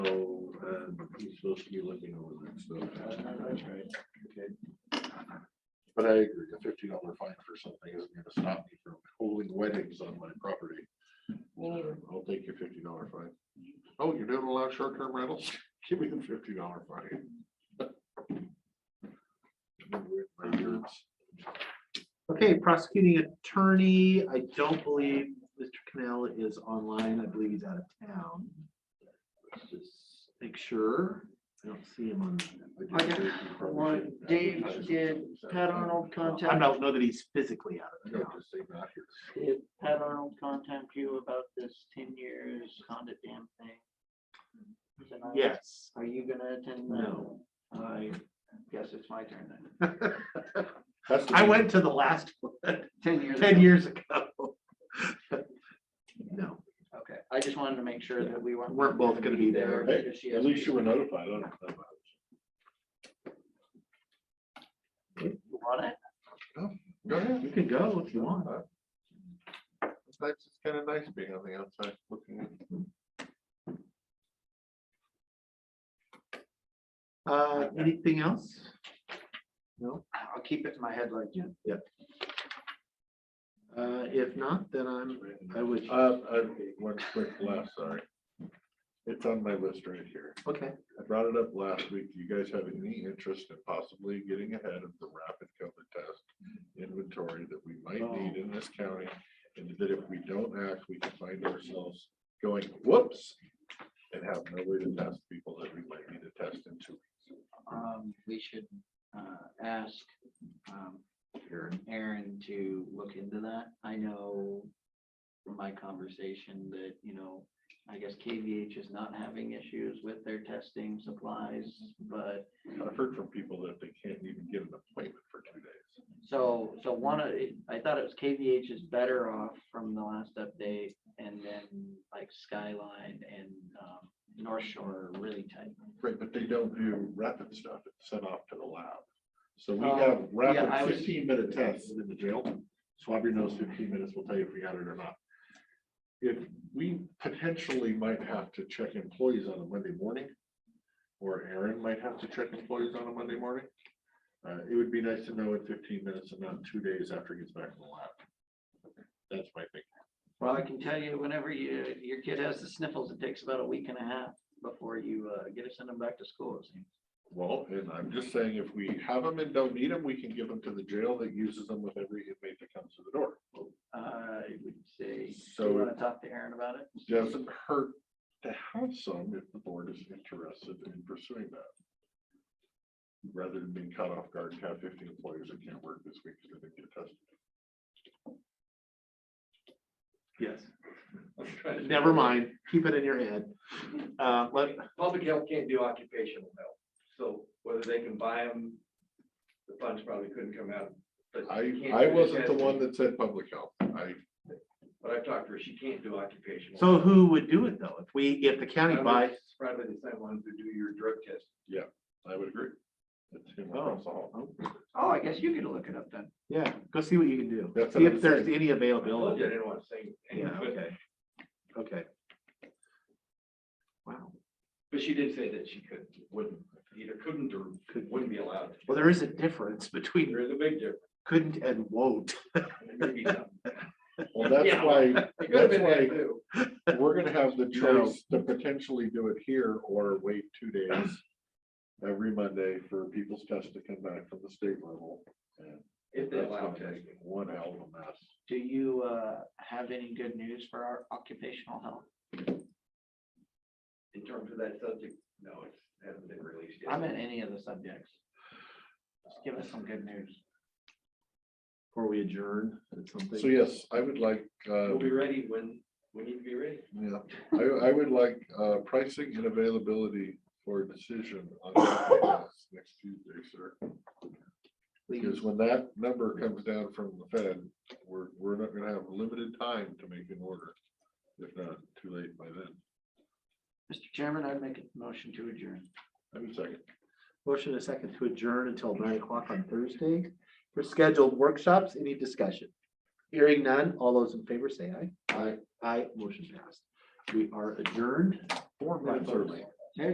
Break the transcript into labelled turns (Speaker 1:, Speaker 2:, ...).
Speaker 1: He's supposed to be looking over that stuff.
Speaker 2: That's right. Okay.
Speaker 1: But I agree, a fifty dollar fine for something isn't gonna stop me from holding weddings on my property.
Speaker 3: Mm.
Speaker 1: I'll take your fifty dollar fine. Oh, you don't allow short term rentals? Give me the fifty dollar fine.
Speaker 3: Oh,
Speaker 2: Okay, prosecuting attorney, I don't believe Mr. Cannell is online. I believe he's out of town. Let's Just Make sure. I don't see him on.
Speaker 3: I got one. Dave did Pat Arnold
Speaker 2: I
Speaker 3: contact,
Speaker 2: don't know that he's physically out of town.
Speaker 3: did Pat Arnold contact you about this ten years Honda dam thing? Tonight?
Speaker 2: Yes.
Speaker 3: Are you gonna attend that?
Speaker 2: No.
Speaker 3: I guess it's my turn then.
Speaker 2: I went to the last one
Speaker 3: Ten years.
Speaker 2: ten
Speaker 3: ago.
Speaker 2: years ago. No,
Speaker 3: Okay, I just wanted to make sure that we weren't.
Speaker 2: We're both gonna be there.
Speaker 1: Hey,
Speaker 3: because she
Speaker 1: At
Speaker 3: has-
Speaker 1: least you were notified. I don't know about
Speaker 3: You want it?
Speaker 1: it. Go ahead.
Speaker 2: you can go if you want.
Speaker 1: That's kind of nice being on the outside looking at.
Speaker 2: Uh, anything else? No,
Speaker 3: I'll keep it in my head like you.
Speaker 2: uh, if not, then I'm, I would,
Speaker 1: Uh, I- one quick last, sorry. It's on my list right here.
Speaker 2: okay.
Speaker 1: I brought it up last week. Do you guys have any interest in possibly getting ahead of the rapid COVID test inventory that we might need in this county? And that if we don't act, we can find ourselves going whoops and have no way to test people that we might need to test in two weeks.
Speaker 3: Um, we should, uh, ask, um, Aaron to look into that. I know from my conversation that, you know, I guess KVH is not having issues with their testing supplies, but
Speaker 1: I've heard from people that they can't even get an appointment for two days.
Speaker 3: so, so one of, it- I thought it was KVH is better off from the last update and then like Skyline and, um, North Shore are really tight.
Speaker 1: Right, but they don't do rapid stuff. It's sent off to the lab. So we
Speaker 3: Oh,
Speaker 1: have
Speaker 3: I
Speaker 1: rapid
Speaker 3: was-
Speaker 1: fifteen minute tests in the jail. Swab your nose fifteen minutes will tell you if we got it or not. If we potentially might have to check employees on a Monday morning. Or Aaron might have to check employees on a Monday morning. Uh, it would be nice to know in fifteen minutes and not two days after he gets back from the lab. That's my thing.
Speaker 3: Well, I can tell you, whenever you, your kid has the sniffles, it takes about a week and a half before you, uh, get to send them back to school. it seems.
Speaker 1: Well, and I'm just saying, if we have them and don't need them, we can give them to the jail that uses them with every inmate that comes to the door.
Speaker 3: I would say, do
Speaker 1: So-
Speaker 3: you wanna talk to Aaron about it?
Speaker 1: Doesn't hurt to have some if the board is interested in pursuing that. Rather than being caught off guard and have fifty employees that can't work this week because they didn't get tested.
Speaker 2: Yes. Never mind, keep it in your head. Uh, let,
Speaker 4: Public health can't do occupational health, so whether they can buy them, the funds probably couldn't come out. But you can't
Speaker 1: I, I
Speaker 4: do
Speaker 1: wasn't the
Speaker 4: testing.
Speaker 1: one that said public health. I,
Speaker 4: But I've talked to her, she can't do occupational.
Speaker 2: so who would do it though? If we, if the county
Speaker 1: Uh-huh.
Speaker 2: buys,
Speaker 4: It's Probably the same ones who do your drug test.
Speaker 1: I would agree. That's him across the hall.
Speaker 3: Oh, I guess you could look it up then.
Speaker 2: yeah, go see what you can do.
Speaker 1: That's
Speaker 2: See
Speaker 1: what
Speaker 2: if
Speaker 1: I'm
Speaker 2: there's
Speaker 1: saying.
Speaker 2: any
Speaker 4: I told you I
Speaker 2: availability.
Speaker 4: didn't want to say,
Speaker 2: Yeah,
Speaker 4: anything, but-
Speaker 2: okay. Okay. Wow.
Speaker 4: but she did say that she could, wouldn't, either couldn't or wouldn't be allowed. to.
Speaker 2: Well, there is a difference between
Speaker 4: There is a big difference.
Speaker 2: couldn't and won't.
Speaker 4: Maybe not.
Speaker 1: Well, that's
Speaker 4: Yeah.
Speaker 1: why,
Speaker 4: It could have been
Speaker 1: That's
Speaker 4: that
Speaker 1: why-
Speaker 4: too.
Speaker 1: we're gonna have the
Speaker 2: No.
Speaker 1: choice to potentially do it here or wait two days. Every Monday for people's test to come back from the state level. and
Speaker 4: If they
Speaker 1: that's
Speaker 4: allow
Speaker 1: gonna
Speaker 4: testing.
Speaker 1: make One hell of a mess.
Speaker 3: Do you, uh, have any good news for our occupational health?
Speaker 4: In terms of that subject, no, it hasn't been released yet.
Speaker 3: I'm in any of the subjects. Just give us some good news.
Speaker 2: Before we adjourn, it's
Speaker 1: So
Speaker 2: something.
Speaker 1: yes, I would like, uh,
Speaker 4: We'll be ready when, we need to be ready.
Speaker 1: yeah, I, I would like, uh, pricing and availability for decision on natural gas next Tuesday, sir. Because when that number comes down from the Fed, we're, we're not gonna have limited time to make an order. If not, too late by then.
Speaker 3: Mr. Chairman, I'd make a motion to adjourn.
Speaker 1: I'm second.
Speaker 2: Motion a second to adjourn until nine o'clock on Thursday for scheduled workshops. Any discussion? Hearing none, all those in favor say aye. Aye. Aye, motion passed. We are adjourned.
Speaker 1: Four minutes early.